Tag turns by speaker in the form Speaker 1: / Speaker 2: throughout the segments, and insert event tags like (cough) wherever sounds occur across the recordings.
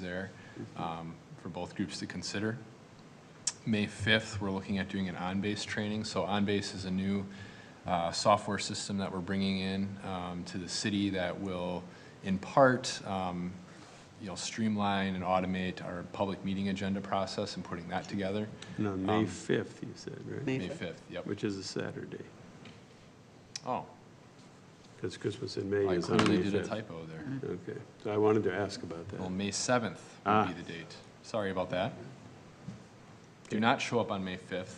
Speaker 1: there um, for both groups to consider. May 5th, we're looking at doing an on-base training. So on-base is a new uh, software system that we're bringing in um, to the city that will, in part, um, you know, streamline and automate our public meeting agenda process and putting that together.
Speaker 2: No, May
Speaker 1: Um,
Speaker 2: 5th, you said, right?
Speaker 3: May
Speaker 1: May
Speaker 3: 5th.
Speaker 1: 5th, yep.
Speaker 2: Which is a Saturday,
Speaker 1: Oh,
Speaker 2: because Christmas in May
Speaker 1: I
Speaker 2: is on May
Speaker 1: clearly did a
Speaker 2: 5th.
Speaker 1: typo there.
Speaker 2: Okay, so I wanted to ask about
Speaker 1: Well,
Speaker 2: that.
Speaker 1: May 7th would
Speaker 2: Ah.
Speaker 1: be the date. Sorry about that. Do not show up on May 5th.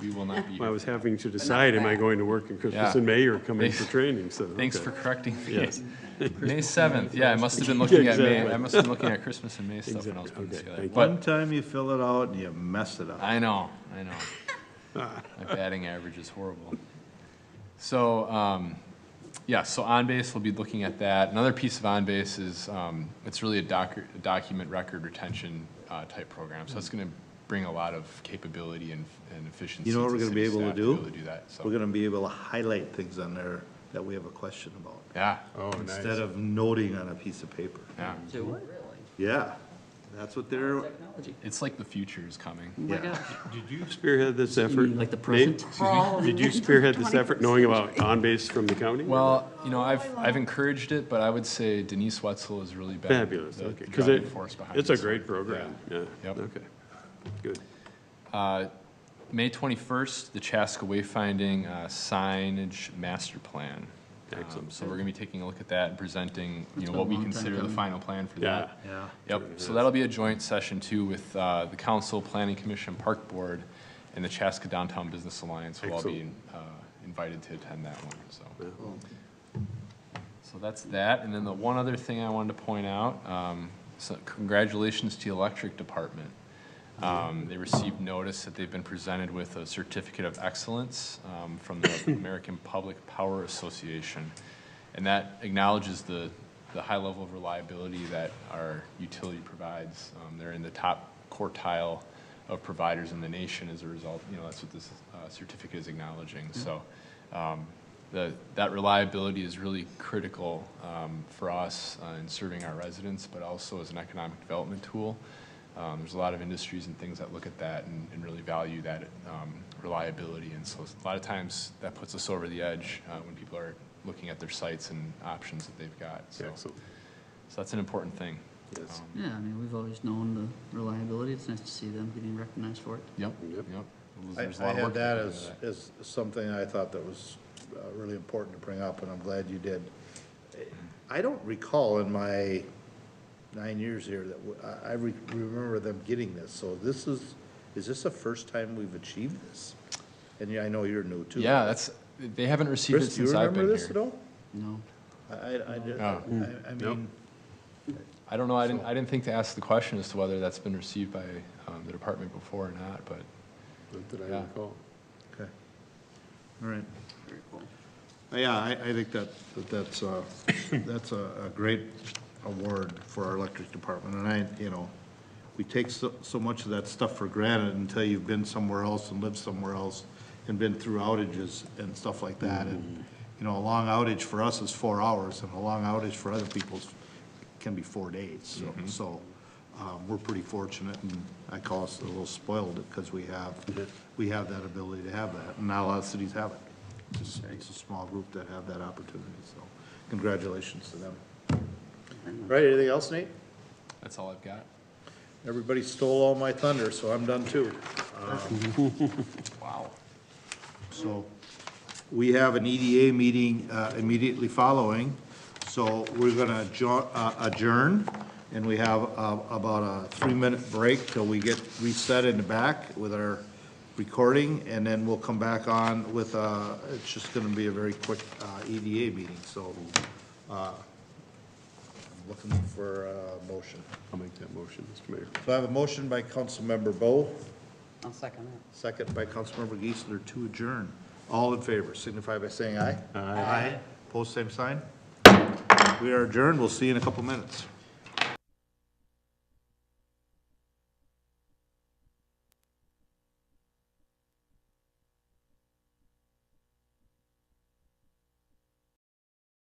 Speaker 1: We will
Speaker 2: (laughs)
Speaker 1: not be
Speaker 2: Well, I
Speaker 1: here.
Speaker 2: was having to decide, am I
Speaker 3: bad.
Speaker 2: going to work in Christmas
Speaker 1: Yeah.
Speaker 2: in May or coming for
Speaker 1: Thanks-
Speaker 2: training, so.
Speaker 1: Thanks
Speaker 2: okay.
Speaker 1: for correcting me.
Speaker 2: Yes.
Speaker 1: (laughs) May 7th, yeah, I must have been looking at May, I
Speaker 2: Exactly.
Speaker 1: must have been looking at Christmas and May stuff when I was putting this
Speaker 2: Exactly.
Speaker 1: together.
Speaker 2: Okay,
Speaker 4: One
Speaker 1: But,
Speaker 4: time you fill it out and you mess it up.
Speaker 1: I know, I know.
Speaker 2: (laughs)
Speaker 1: My batting average is horrible. So, um, yeah, so on-base, we'll be looking at that. Another piece of on-base is, um, it's really a doc, a document record retention, uh, type program. So it's gonna bring a lot of capability and, and efficiency.
Speaker 4: You know what we're gonna be
Speaker 1: city
Speaker 4: able to
Speaker 1: staff
Speaker 4: do?
Speaker 1: Be able to do that,
Speaker 4: We're
Speaker 1: so,
Speaker 4: gonna be able to highlight things on there that we have a question about,
Speaker 1: yeah,
Speaker 2: Oh, nice.
Speaker 4: instead of noting on a piece of paper.
Speaker 1: yeah.
Speaker 3: Really?
Speaker 4: Yeah, that's what they're,
Speaker 3: Technology.
Speaker 1: It's like the future is coming.
Speaker 3: Oh my
Speaker 4: Yeah.
Speaker 3: gosh.
Speaker 2: Did you spearhead this effort?
Speaker 3: mean like the
Speaker 2: Nate?
Speaker 3: present?
Speaker 2: Excuse me?
Speaker 3: (laughs)
Speaker 2: Did you spearhead this effort knowing about on-base from the county?
Speaker 1: Well, you know, I've, I've encouraged it, but I would say Denise Wetzel has really been
Speaker 2: Fabulous,
Speaker 1: the
Speaker 2: okay. Because
Speaker 1: driving force behind
Speaker 2: it's a
Speaker 1: this one.
Speaker 2: great program, yeah.
Speaker 1: Yep.
Speaker 2: Okay, good.
Speaker 1: Uh, May 21st, the Chaska Wayfinding uh, signage master plan. Um,
Speaker 2: Excellent.
Speaker 1: So we're going to be taking a look at that and presenting, you know,
Speaker 3: been a
Speaker 1: what we
Speaker 3: long time
Speaker 1: consider the
Speaker 3: coming.
Speaker 1: final plan for
Speaker 2: Yeah.
Speaker 1: that.
Speaker 4: yeah.
Speaker 1: Yep, so that'll be a joint session too with uh, the council, planning commission, park board, and the Chaska Downtown Business Alliance will all be uh, invited to attend that one, so. So that's that, and then the one other thing I wanted to point out, um, so congratulations to the electric department. Um, They received notice that they've been presented with a certificate of excellence um, from the American Public Power Association. And that acknowledges the, the high level of reliability that our utility provides. Um, They're in the top quartile of providers in the nation as a result, you know, that's what this uh, certificate is acknowledging.
Speaker 4: Mm-hmm.
Speaker 1: So um, the, that reliability is really critical um, for us uh, in serving our residents, but also as an economic development tool. Um, There's a lot of industries and things that look at that and and really value that um, reliability. And so a lot of times that puts us over the edge uh, when people are looking at their sites and options that they've got. So so
Speaker 2: Excellent,
Speaker 1: that's an important thing.
Speaker 2: yes,
Speaker 1: Um,
Speaker 3: Yeah, I mean, we've always known the reliability. It's nice to see them getting recognized for it.
Speaker 1: Yep,
Speaker 2: Yep.
Speaker 1: yep.
Speaker 4: I,
Speaker 1: Um, There's a
Speaker 4: I
Speaker 1: lot of
Speaker 4: had
Speaker 1: work
Speaker 4: that
Speaker 1: that goes
Speaker 4: as,
Speaker 1: into that.
Speaker 4: as something I thought that was uh, really important to bring up, and I'm glad you did. I don't recall in my nine years here that, w- I, I re- remember them getting this, so this is, is this the first time we've achieved this? And yeah, I know you're new too.
Speaker 1: Yeah, that's, they haven't received it
Speaker 4: Chris, do you
Speaker 1: since I've
Speaker 4: remember
Speaker 1: been
Speaker 4: this at
Speaker 1: here.
Speaker 4: all?
Speaker 3: No.
Speaker 4: I, I, I, did-
Speaker 1: Oh.
Speaker 4: I, I mean,
Speaker 1: I don't know, I didn't, I didn't think to ask the question as to whether that's been received by um, the department before or not, but
Speaker 2: not that I
Speaker 1: Yeah.
Speaker 2: recall.
Speaker 4: okay, all right.
Speaker 3: Very cool.
Speaker 4: Yeah, I, I think that, that that's, uh, (coughs) that's a, a great award for our electric department, and I, you know, we take so, so much of that stuff for granted until you've been somewhere else and lived somewhere else and been through outages and stuff like that, and, you know, a long outage for us is four hours, and a long outage for other people can be four days, so, so, um, we're pretty fortunate, and I call us a little spoiled, because we have, we have that ability to have that, and not a lot of cities have it. It's it's a small group that have that opportunity, so congratulations to them. Right, anything else, Nate?
Speaker 1: that's all I've got.
Speaker 4: Everybody stole all my thunder, so I'm done too. Um,
Speaker 1: Wow.
Speaker 4: So we have an EDA meeting uh, immediately following, so we're going to adjourn, and we have uh, about a three-minute break till we get reset in the back with our recording, and then we'll come back on with, uh, it's just going to be a very quick uh, EDA meeting, so uh, I'm looking for a motion.
Speaker 2: I'll make that motion, Mr. Mayor.
Speaker 4: So I have a motion by Councilmember Bo,
Speaker 3: I'll second that.
Speaker 4: Second by Councilmember Geisler to adjourn. All in favor, signify by saying aye. Aye. Post same sign. We are adjourned. We'll see you in a couple minutes.